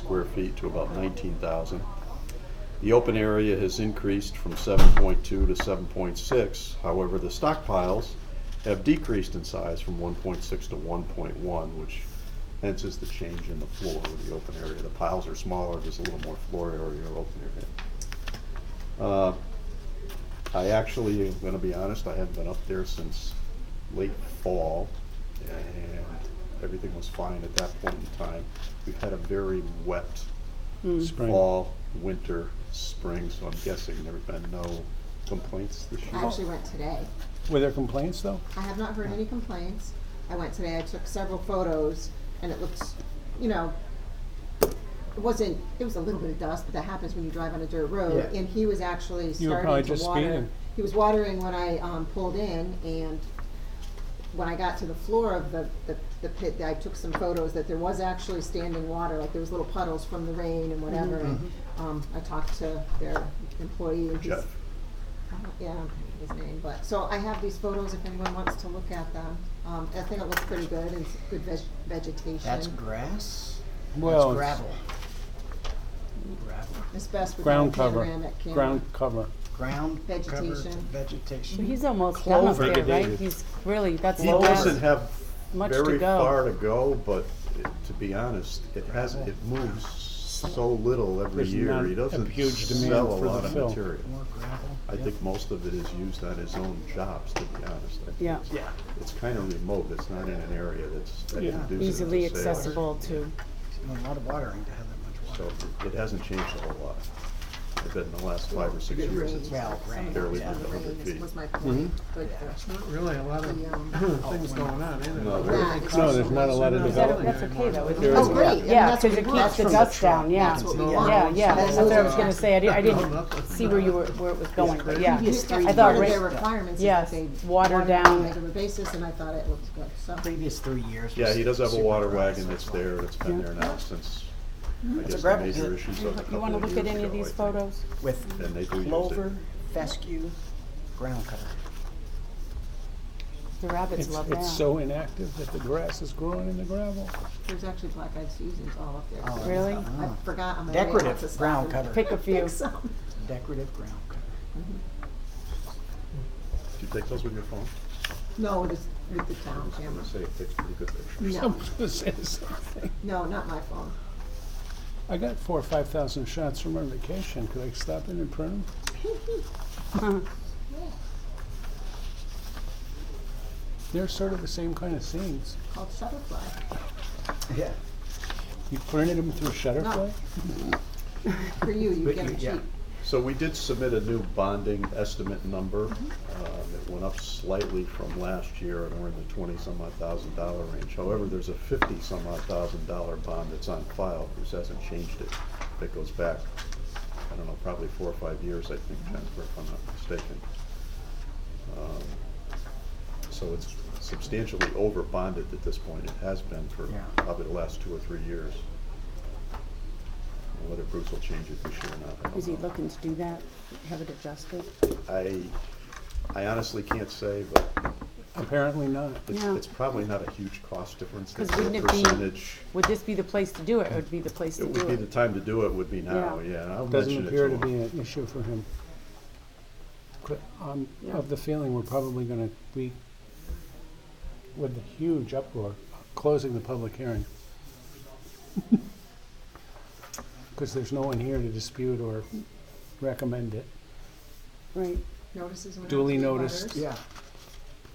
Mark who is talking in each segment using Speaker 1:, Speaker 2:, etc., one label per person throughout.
Speaker 1: square feet to about nineteen thousand. The open area has increased from seven point two to seven point six, however, the stockpiles have decreased in size from one point six to one point one, which hence is the change in the floor of the open area. The piles are smaller, there's a little more floor area or open area. Uh, I actually am gonna be honest, I haven't been up there since late fall, and everything was fine at that point in time. We've had a very wet
Speaker 2: Spring.
Speaker 1: fall, winter, spring, so I'm guessing there have been no complaints this
Speaker 3: I
Speaker 1: year.
Speaker 3: actually went today.
Speaker 2: Were there complaints though?
Speaker 3: I have not heard any complaints. I went today, I took several photos, and it looks, you know, it wasn't, it was a little bit of dust, but that happens when you drive on a dirt road,
Speaker 2: Yeah.
Speaker 3: and he was actually
Speaker 2: You were probably
Speaker 3: starting to
Speaker 2: just
Speaker 3: water.
Speaker 2: speeding.
Speaker 3: He was watering when I, um, pulled in, and when I got to the floor of the, the, the pit, I took some photos that there was actually standing water, like there was little puddles from the rain and whatever,
Speaker 2: Mm-hmm.
Speaker 3: and, um, I talked to their employee, and he's,
Speaker 1: Jeff,
Speaker 3: I don't- Yeah, I don't remember his name, but, so I have these photos if anyone wants to look at them. Um, I think it looks pretty good, and it's good veg- vegetation.
Speaker 4: That's grass?
Speaker 2: Well,
Speaker 4: That's
Speaker 2: it's
Speaker 4: gravel. Gravel.
Speaker 3: It's best with a
Speaker 2: Ground cover,
Speaker 3: panoramic camera.
Speaker 2: ground cover.
Speaker 4: Ground covered
Speaker 3: Vegetation.
Speaker 4: Vegetation.
Speaker 5: But he's almost done up
Speaker 4: Clover.
Speaker 5: there, right?
Speaker 2: Diggity.
Speaker 5: He's really, that's
Speaker 1: he
Speaker 5: the
Speaker 1: doesn't
Speaker 5: last
Speaker 1: have
Speaker 5: much to
Speaker 1: very
Speaker 5: go.
Speaker 1: far to go, but it- to be honest, it has, it moves so little every
Speaker 2: There's not
Speaker 1: year, he
Speaker 2: a
Speaker 1: doesn't
Speaker 2: huge demand
Speaker 1: sell a
Speaker 2: for the
Speaker 1: lot of
Speaker 2: fill.
Speaker 1: material.
Speaker 4: More gravel.
Speaker 1: I
Speaker 4: Yep.
Speaker 1: think most of it is used on his own jobs, to be honest. I think
Speaker 5: Yeah.
Speaker 1: it's-
Speaker 4: Yeah.
Speaker 1: It's kind of remote, it's not in an area that's that
Speaker 2: Yeah.
Speaker 1: conducive to
Speaker 5: Easily
Speaker 1: sales.
Speaker 5: accessible to,
Speaker 4: A lot of watering to have that much
Speaker 1: So
Speaker 4: water.
Speaker 1: it hasn't changed a whole lot. I bet in the last five or six years, it's
Speaker 4: Well,
Speaker 3: Some
Speaker 4: rain.
Speaker 1: barely
Speaker 3: of
Speaker 1: been
Speaker 3: the
Speaker 1: over
Speaker 3: rain
Speaker 1: feet.
Speaker 3: was my point,
Speaker 2: Mm-hmm.
Speaker 3: but
Speaker 4: Yeah.
Speaker 3: the-
Speaker 6: Not really a lot of
Speaker 3: the, um,
Speaker 6: things going on, isn't
Speaker 1: No,
Speaker 6: it?
Speaker 1: there-
Speaker 3: that is
Speaker 2: No, there's not a lot of
Speaker 5: Is that-
Speaker 2: development.
Speaker 5: that's okay though, isn't
Speaker 2: There
Speaker 5: it?
Speaker 2: is
Speaker 3: Oh, great, I mean,
Speaker 5: Yeah,
Speaker 3: that's
Speaker 5: because
Speaker 3: what
Speaker 5: it
Speaker 3: we want.
Speaker 5: keeps the dust down, yeah.
Speaker 3: That's what we
Speaker 6: Yeah.
Speaker 3: want.
Speaker 5: Yeah, yeah,
Speaker 3: That's
Speaker 5: that's what I
Speaker 3: what
Speaker 5: was
Speaker 3: we
Speaker 5: gonna
Speaker 3: want.
Speaker 5: say, I di- I
Speaker 6: No, not
Speaker 5: didn't
Speaker 6: the-
Speaker 5: see where you were, where it was going, but yeah.
Speaker 3: Previous three
Speaker 5: I thought
Speaker 3: years,
Speaker 5: rain-
Speaker 3: their requirements is that
Speaker 5: yes,
Speaker 3: they
Speaker 5: water
Speaker 3: on a
Speaker 5: down.
Speaker 3: regular basis, and I thought it looked good, so.
Speaker 4: Previous three years.
Speaker 1: Yeah,
Speaker 4: was
Speaker 1: he does have a
Speaker 4: super
Speaker 1: water
Speaker 4: dry,
Speaker 1: wagon
Speaker 4: so
Speaker 1: that's
Speaker 4: it's not-
Speaker 1: there, it's been there now since,
Speaker 5: Mm-hmm.
Speaker 1: I guess, the
Speaker 4: gravel
Speaker 1: major
Speaker 4: pit.
Speaker 1: issues
Speaker 5: You
Speaker 1: of a
Speaker 5: you wanna
Speaker 1: couple of
Speaker 5: look at
Speaker 1: years
Speaker 5: any of
Speaker 1: ago, I
Speaker 5: these
Speaker 1: think.
Speaker 5: photos?
Speaker 1: And they
Speaker 4: With
Speaker 1: do use it.
Speaker 4: clover, fescue, ground cover.
Speaker 5: The rabbits
Speaker 2: It's,
Speaker 5: love
Speaker 2: it's
Speaker 5: that.
Speaker 2: so inactive that the grass is growing in the gravel.
Speaker 3: There's actually black-eyed Susans all up there.
Speaker 4: Oh,
Speaker 3: too.
Speaker 5: Really?
Speaker 1: Uh,
Speaker 3: I
Speaker 4: uh-huh.
Speaker 3: forgot on my way out to
Speaker 4: Decorative
Speaker 3: stop
Speaker 4: ground
Speaker 3: and
Speaker 4: cover,
Speaker 5: Pick a few.
Speaker 3: Pick some.
Speaker 4: decorative ground cover.
Speaker 1: Do you take those with your phone?
Speaker 3: No, it is with the town
Speaker 1: I'm
Speaker 3: camera.
Speaker 1: gonna say it takes pretty good
Speaker 5: Mm-hmm.
Speaker 1: pictures.
Speaker 3: No,
Speaker 2: something.
Speaker 3: no, not my phone.
Speaker 2: I got four or five thousand shots from our vacation. Could I stop in and print them? They're sort of the same kind of scenes.
Speaker 3: called Shutterfly.
Speaker 4: Yeah.
Speaker 2: You printed them through Shutterfly?
Speaker 3: For you, you
Speaker 4: But
Speaker 3: get
Speaker 4: you-
Speaker 3: it
Speaker 4: yeah.
Speaker 3: cheap.
Speaker 1: So we did submit a new bonding estimate number.
Speaker 5: Mm-hmm.
Speaker 1: Um, It went up slightly from last year, and we're in the twenty-some odd thousand dollar range. However, there's a fifty-some odd thousand dollar bond that's on file, Bruce hasn't changed it. That goes back, I don't know, probably four or five years, I think, Jennifer, if I'm not mistaken. Um, So it's substantially over bonded at this point, it has been for
Speaker 4: Yeah.
Speaker 1: probably the last two or three years. Whether Bruce will change it this year or not, I don't
Speaker 5: Is he
Speaker 1: know.
Speaker 5: looking to do that, have it adjusted?
Speaker 1: I, I honestly can't say, but
Speaker 2: Apparently not.
Speaker 1: it's,
Speaker 5: Yeah.
Speaker 1: it's probably not a huge cost difference.
Speaker 5: 'Cause
Speaker 1: It's a
Speaker 5: wouldn't it be-
Speaker 1: percentage.
Speaker 5: Would this be the place to do it, or would be the place to
Speaker 1: It would
Speaker 5: do
Speaker 1: be the
Speaker 5: it?
Speaker 1: time to do it would be now,
Speaker 5: Yeah.
Speaker 1: yeah. and I'll
Speaker 2: Doesn't
Speaker 1: mention it
Speaker 2: appear to
Speaker 1: him.
Speaker 2: be an issue for him. Cl- I'm of the feeling we're probably gonna be, with the huge uproar, closing the public hearing. Because there's no one here to dispute or recommend it.
Speaker 5: Right,
Speaker 3: Notices went out
Speaker 2: Duly
Speaker 3: to the
Speaker 2: noticed.
Speaker 3: butters.
Speaker 4: Yeah.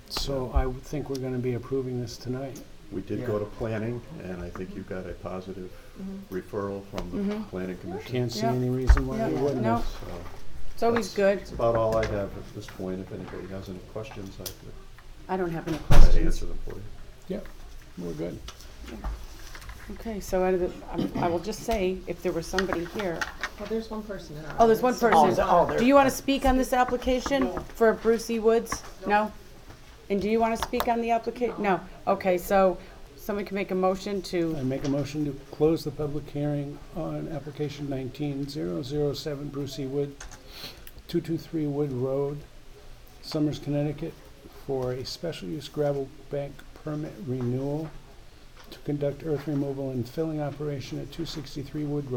Speaker 2: So I would think we're gonna be approving this tonight.
Speaker 1: We did go
Speaker 4: Yeah.
Speaker 1: to planning, and I think you got a positive referral from the planning commission.
Speaker 2: Can't see
Speaker 5: Mm-hmm. Yeah. Oh.
Speaker 2: any reason why
Speaker 5: Yeah.
Speaker 2: we wouldn't
Speaker 5: No.
Speaker 2: have.
Speaker 1: So
Speaker 5: it's always good.
Speaker 1: That's about all I have at this point. If anybody has any questions, I could-
Speaker 5: I don't have any
Speaker 1: I could
Speaker 5: questions.
Speaker 1: answer them for you.
Speaker 2: Yep, we're good.
Speaker 5: Okay, so out of the, I'm- I will just say, if there was somebody here,
Speaker 3: Well, there's one person in our.
Speaker 5: oh, there's one
Speaker 4: Oh,
Speaker 5: person.
Speaker 4: the- oh, there-
Speaker 5: Do you want to speak on this application for Bruce E. Woods? No? And do you want to speak on the applica, no? Okay, so someone can make a motion
Speaker 2: I
Speaker 5: to,
Speaker 2: make a motion to close the public hearing on application nineteen zero zero seven Bruce E. Wood, two two three Wood Road, Summers, Connecticut, for a special use gravel bank permit renewal to conduct earth removal and filling operation at two sixty-three Wood Road.